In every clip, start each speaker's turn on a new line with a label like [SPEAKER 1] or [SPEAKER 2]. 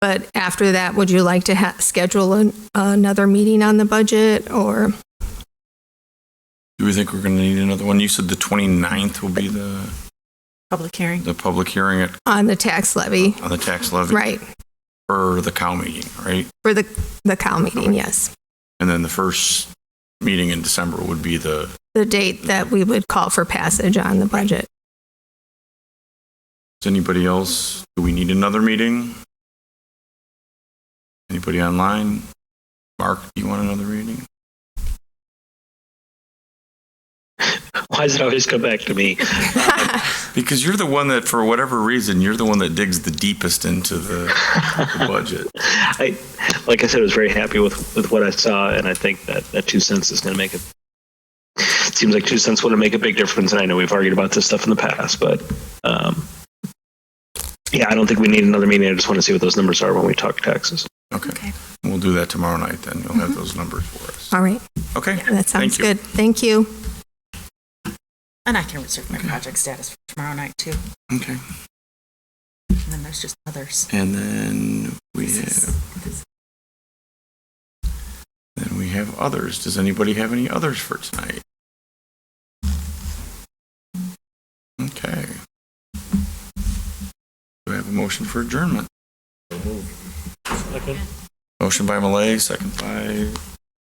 [SPEAKER 1] But after that, would you like to ha- schedule an- another meeting on the budget or?
[SPEAKER 2] Do we think we're going to need another one? You said the 29th will be the,
[SPEAKER 3] Public hearing.
[SPEAKER 2] the public hearing at-
[SPEAKER 1] on the tax levy,
[SPEAKER 2] on the tax levy
[SPEAKER 1] right,
[SPEAKER 2] for the cow meeting, right?
[SPEAKER 1] for the, the cow meeting, yes.
[SPEAKER 2] And then the first meeting in December would be the,
[SPEAKER 1] The date that we would call for passage on the budget.
[SPEAKER 2] is anybody else, do we need another meeting? Anybody online? Mark, do you want another meeting?
[SPEAKER 4] Why does it always come back to me?
[SPEAKER 2] Because you're the one that, for whatever reason, you're the one that digs the deepest into the the budget.
[SPEAKER 4] I, like I said, I was very happy with, with what I saw, and I think that, that two cents is going to make it. It seems like two cents would make a big difference, and I know we've argued about this stuff in the past, but um, yeah, I don't think we need another meeting. I just want to see what those numbers are when we talk taxes.
[SPEAKER 2] Okay. We'll do that tomorrow night then. You'll have those numbers for us.
[SPEAKER 1] All right,
[SPEAKER 2] Okay?
[SPEAKER 1] that
[SPEAKER 2] Thank
[SPEAKER 1] sounds
[SPEAKER 2] you.
[SPEAKER 1] good. Thank you.
[SPEAKER 3] And I can reserve my project status for tomorrow night too.
[SPEAKER 2] Okay.
[SPEAKER 3] And then there's just others.
[SPEAKER 2] And then we
[SPEAKER 3] This
[SPEAKER 2] have,
[SPEAKER 3] is-
[SPEAKER 2] then we have others. Does anybody have any others for tonight? Okay. Do I have a motion for adjournment? Motion by Malay, second by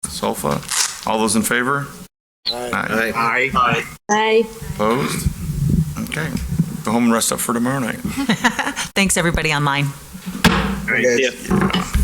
[SPEAKER 2] Solfa. All those in favor? Aye.
[SPEAKER 4] Aye. Aye.
[SPEAKER 2] Opposed? Okay. Go home and rest up for tomorrow night.
[SPEAKER 3] Thanks, everybody online.
[SPEAKER 4] Yeah.
[SPEAKER 2] Yeah.